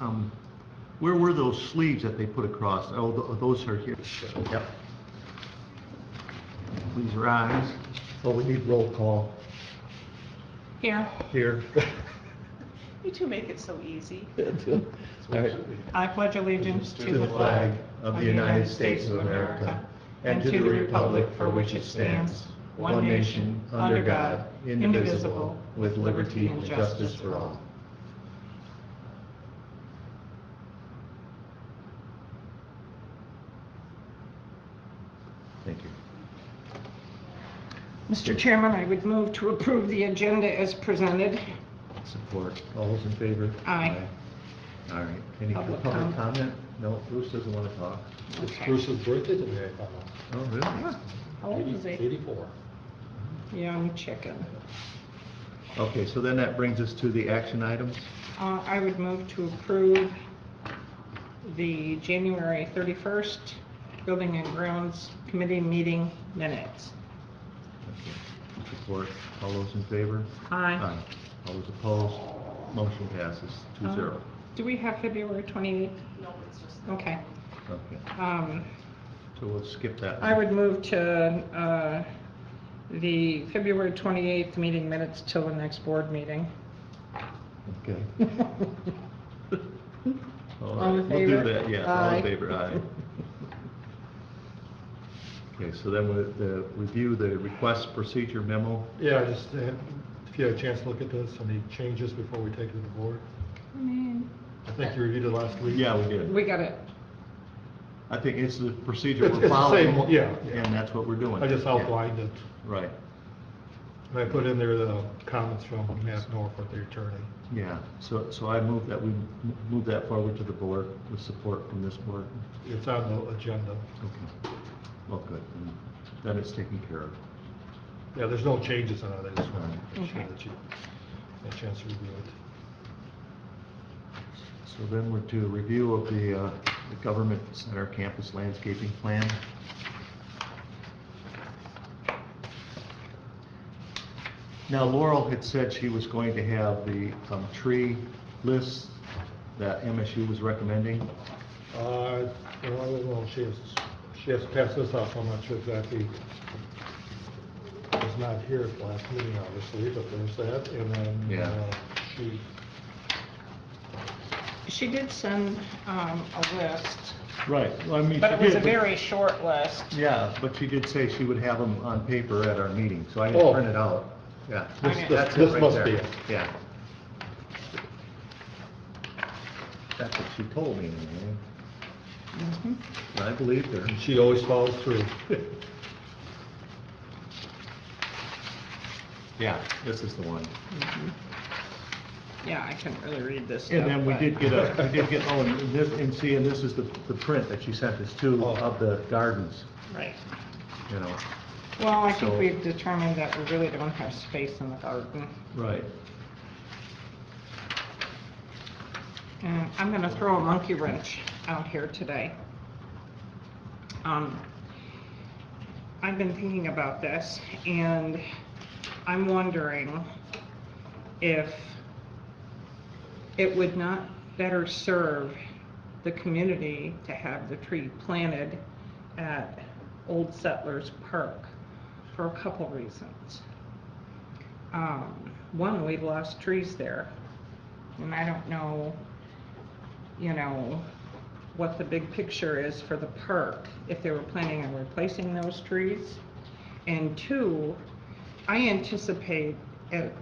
Um, Where were those sleeves that they put across? Oh, tho- those are here. Yep. Please rise. Oh, we need roll call Here, here. you two make it so easy. All right. I pledge allegiance To the flag of the United States of America and to the republic for which it stands, one nation, under God, indivisible, with liberty and justice for all. Thank you. Mr. Chairman, I would move to approve the agenda as presented. Support. All those in favor? Aye. Aye. All right. Any Public public comment. comment? No, Bruce doesn't want to talk. It's Okay. Bruce's birthday today, I found out. Oh, really? How old is he? Eighty-four. Young chicken. Okay, so then that brings us to the action items. Uh, I would move to approve the January 31st Building and Grounds Committee meeting minutes. Okay. Support. All those in favor? Aye. All those opposed? Motion passes two zero. Um, Do we have February 28th? No, it's just. Okay. Okay, Um, so we'll skip that. I would move to uh, the February 28th meeting minutes till the next board meeting. Okay. All All in right, we'll do favor? that, yes, all Aye. in favor, aye. Okay, so then we'll the- review the request procedure memo. Yeah, I just, uh, if you had a chance to look at this, any changes before we take it to the board? I think you reviewed it last week. Yeah, we did. We got it. I think it's the procedure It's- we're it's the same following. one, yeah, yeah. And that's what we're doing. I just Yeah, outlined it, Right, and I put in there the comments from Matt Norfolk, the attorney. yeah, so, so I move that we m- move that forward to the board with support from this board. It's on the agenda. Okay, well, good, then- then it's taken care of. Yeah, there's no changes on it, I just wanted to make sure Okay. that you had a chance to review it. So then we're to review of the, uh, the government center campus landscaping plan. Now Laurel had said she was going to have the, um, tree lists that MSU was recommending. Uh, well, I don't know, she has, she has passed this off, I'm not sure exactly. Was not here at the last meeting, obviously, but there's that, and then. Yeah. uh, She, She did send um, a list, Right, well, I mean. but it she was a did, very short list. Yeah, but she did say she would have them on paper at our meeting, so I Oh. didn't print it out. Yeah. This- this- that's it this right must there. be it. Yeah. That's what she told me, anyway. Mhm. And I believed her. and she always follows through. Yeah, this is the one. Yeah, I couldn't really read this stuff. And then we but- did get a, we did get, oh, and this, and see, and this is the, the print that she sent us too Oh. of the gardens, Right. you know. Well, I think So- we've determined that we really don't have space in the garden. Right. And Uh, I'm gonna throw a monkey wrench out here today. Um, I've been thinking about this, and I'm wondering if it would not better serve the community to have the tree planted at Old Settlers Park for a couple reasons. Um, one, we've lost trees there, and I don't know you know, what the big picture is for the park, if they were planning on replacing those trees. And two, I anticipate at,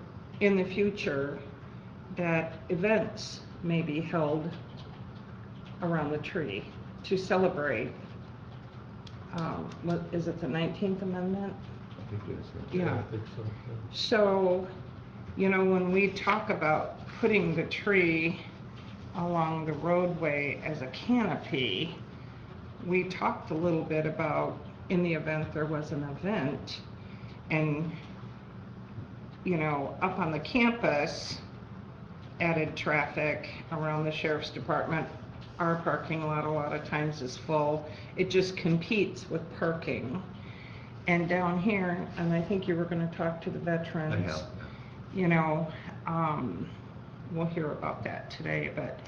in the future that events may be held around the tree to celebrate, um, what, is it the nineteenth amendment? I think it is. Yeah. I think so, uh, yeah. So, you know, when we talk about putting the tree along the roadway as a canopy, we talked a little bit about in the event there was an event and, you know, up on the campus, added traffic around the sheriff's department. Our parking lot a lot of times is full. It just competes with parking. And down here, and I think you were gonna talk to the veterans I have, yeah. you know, um, we'll hear about that today, but